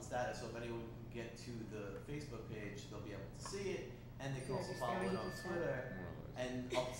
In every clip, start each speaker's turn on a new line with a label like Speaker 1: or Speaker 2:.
Speaker 1: status. So if anyone can get to the Facebook page, they'll be able to see it, and they can also follow it on Twitter and up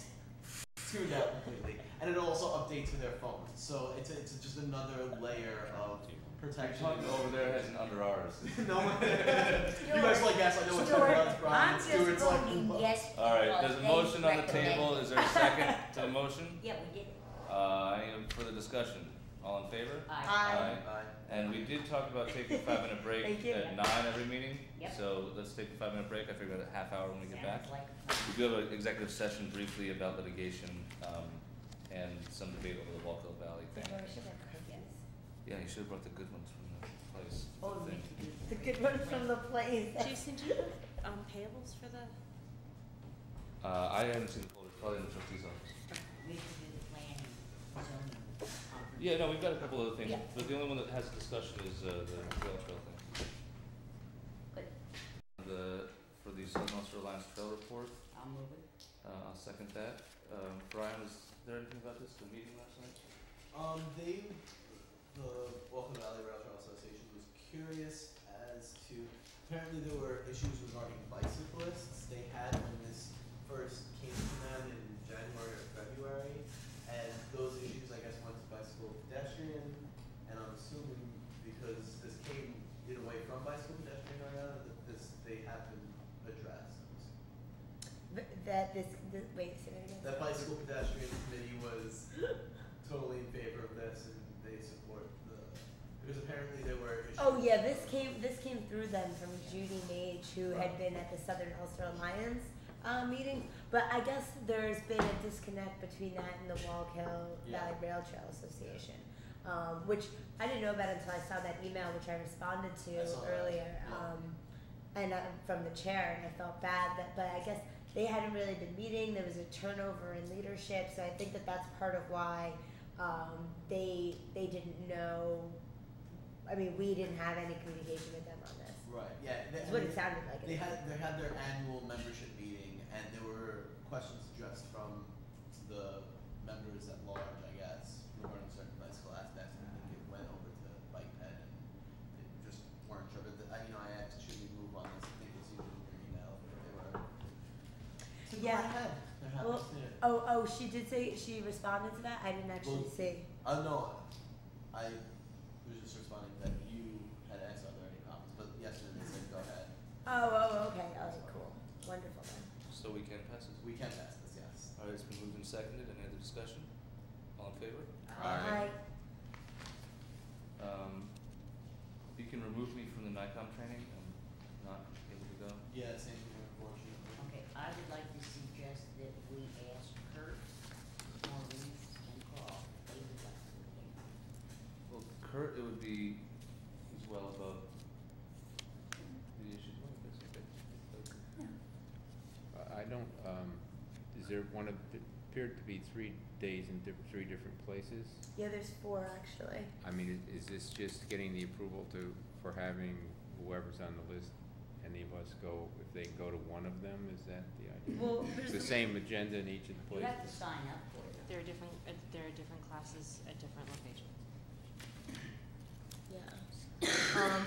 Speaker 1: tuned out completely. And it also updates to their phones. So it's, it's just another layer of protection.
Speaker 2: Talking over there has an under ours.
Speaker 1: no one. you guys like yes, I know what
Speaker 3: Stuart,
Speaker 1: Twitter is, Brian.
Speaker 3: I'm
Speaker 1: Stuart's
Speaker 3: just
Speaker 1: like,
Speaker 3: voting
Speaker 1: what?
Speaker 3: yes.
Speaker 2: All right,
Speaker 3: because
Speaker 2: there's a
Speaker 3: they
Speaker 2: motion on the
Speaker 3: recommend-
Speaker 2: table. Is there a second to the motion?
Speaker 3: Yeah, we did.
Speaker 2: Uh, any further discussion? All in favor?
Speaker 3: Aye.
Speaker 4: Aye.
Speaker 1: Aye.
Speaker 2: And we did talk about taking a five minute break
Speaker 4: Thank you.
Speaker 2: at nine every meeting.
Speaker 3: Yep.
Speaker 2: So let's take a five minute break. I figured a half hour when we get back.
Speaker 3: Sounds like a plan.
Speaker 2: We do have an executive session briefly about litigation, um, and some debate over the Walkill Valley thing.
Speaker 3: Laura should have cookies.
Speaker 2: Yeah, you should have brought the good ones from the place.
Speaker 3: Oh,
Speaker 2: thing.
Speaker 3: Nikki.
Speaker 4: The good one from the place.
Speaker 5: Jason, do you have um, payables for the?
Speaker 2: Uh, I haven't seen the folder, probably in the trustee's office.
Speaker 3: We should do the planning, zoning conference.
Speaker 2: Yeah, no, we've got a couple other things,
Speaker 3: Yeah.
Speaker 2: but the only one that has a discussion is, uh, the rail trail thing.
Speaker 3: Good.
Speaker 2: The, for the Southern Ulster Alliance Trail Report,
Speaker 3: I'll move it.
Speaker 2: uh, I'll second that. Um, Brian, was there anything about this, the meeting last night?
Speaker 1: Um, they, the Walker Valley Rail Trail Association was curious as to, apparently there were issues regarding bicyclists. They had when this first came to them in January or February, and those issues, I guess, went to bicycle pedestrian, and I'm assuming because this came in away from bicycle pedestrian area, that this, they have been addressed.
Speaker 4: Th- That this, this wait, say that again.
Speaker 1: That bicycle pedestrian committee was totally in favor of this and they support the, because apparently there were issues.
Speaker 4: Oh yeah, this came this came through them from Judy Mage, who had been at the Southern Ulster Alliance uh, meeting. But I guess there's been a disconnect between that and the Walk Hill
Speaker 1: Yeah.
Speaker 4: Valley Rail Trail Association, um, which I didn't know about until I saw that email, which I responded to
Speaker 1: I saw that,
Speaker 4: earlier,
Speaker 1: yeah.
Speaker 4: um, and uh, from the chair, and I felt bad that, but I guess they hadn't really been meeting. There was a turnover in leadership, so I think that that's part of why um, they they didn't know. I mean, we didn't have any communication with them on this.
Speaker 1: Right, yeah, they,
Speaker 4: That's what it sounded like.
Speaker 1: they had, they had their annual membership meeting and there were questions addressed from the members at large, I guess, regarding certain bicycle aspects and I think it went over to bike ped and they just weren't sure, but the, I, you know, I asked, should we move on this, I think it's even in your email, but they were. So go
Speaker 4: Yeah.
Speaker 1: ahead, they're happy
Speaker 4: Well,
Speaker 1: to do it.
Speaker 4: Oh, oh, she did say she responded to that. I didn't actually
Speaker 1: Well-
Speaker 4: see.
Speaker 1: Uh, no, I was just responding that you had asked are there any comments, but yesterday they said go ahead.
Speaker 4: Oh, oh, okay. All right, cool, wonderful. Then.
Speaker 2: So we can pass it.
Speaker 1: We can pass this, yes.
Speaker 2: All right, it's been moved and seconded. Any other discussion? All in favor?
Speaker 4: Hi.
Speaker 2: Um, you can remove me from the NICOM training. I'm not able to go.
Speaker 1: Yeah, same here, unfortunately.
Speaker 3: Okay, I would like to suggest that we ask Kurt, Maurice, and Carl, if they would like to attend.
Speaker 2: Well, Kurt, it would be, he's well above the issues. Well, that's okay.
Speaker 6: I- I don't, um, is there one of, there appeared to be three days in diff- three different places?
Speaker 4: Yeah, there's four actually.
Speaker 6: I mean, i- is this just getting the approval to, for having whoever's on the list, any of us go, if they go to one of them, is that the idea?
Speaker 4: Well,
Speaker 6: It's The same agenda in each of the
Speaker 3: You have to
Speaker 6: places?
Speaker 3: sign up for it.
Speaker 5: There are different. Uh, there are different classes at different locations.
Speaker 4: Yeah.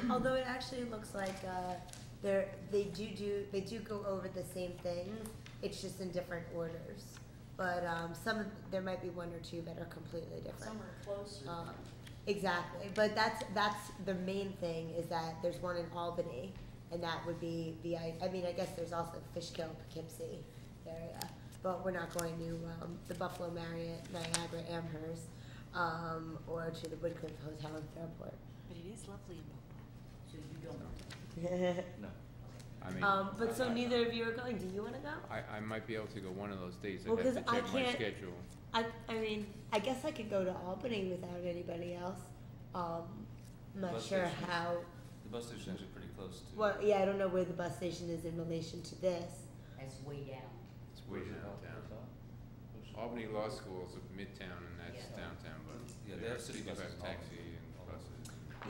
Speaker 4: Um, although it actually looks like uh, they're they do do they do go over the same things. It's just in different orders. But um, some of, there might be one or two that are completely different.
Speaker 3: Some are closer.
Speaker 4: Um, exactly. But that's that's the main thing is that there's one in Albany, and that would be the I, I mean I guess there's also Fishkill, Poughkeepsie area, but we're not going to um, the Buffalo Marriott, Niagara, Amherst, um, or to the Woodcliff Hotel in Fairport.
Speaker 5: But it is lovely in Buffalo.
Speaker 3: So you don't want to.
Speaker 2: No.
Speaker 6: I mean,
Speaker 4: um, but so
Speaker 6: I- I-
Speaker 4: neither of you are going. Do you want to go?
Speaker 6: I, I might be able to go one of those days,
Speaker 4: Well,
Speaker 6: I'd
Speaker 4: 'cause
Speaker 6: have to
Speaker 4: I
Speaker 6: check my
Speaker 4: can't-
Speaker 6: schedule.
Speaker 4: I, I mean, I guess I could go to Albany without anybody else. Um, I'm not
Speaker 2: Bus
Speaker 4: sure
Speaker 2: station.
Speaker 4: how.
Speaker 2: The bus station is actually pretty close to.
Speaker 4: Well, yeah, I don't know where the bus station is in relation to this.
Speaker 3: That's way down.
Speaker 6: It's
Speaker 2: Where's
Speaker 6: way
Speaker 2: it
Speaker 6: downtown.
Speaker 2: out? Where's it?
Speaker 6: Albany Law School is midtown and that's
Speaker 3: Yeah.
Speaker 6: downtown, but.
Speaker 2: Yeah, they have city
Speaker 6: you
Speaker 2: buses
Speaker 6: have
Speaker 2: and all that.
Speaker 6: Taxi and buses.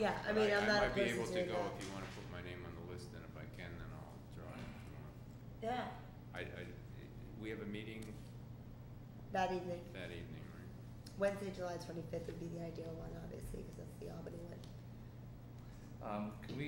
Speaker 4: Yeah, I mean, I'm not
Speaker 6: might be
Speaker 4: opposed
Speaker 6: able to
Speaker 4: doing
Speaker 6: go
Speaker 4: that.
Speaker 6: if you wanna put my name on the list, and if I can, then I'll drive if you want.
Speaker 4: Yeah,
Speaker 6: I, I, we have a meeting
Speaker 4: that evening.
Speaker 6: that evening, right?
Speaker 4: Wednesday, July 25th would be the ideal one, obviously, because that's the Albany one.
Speaker 2: Um, can we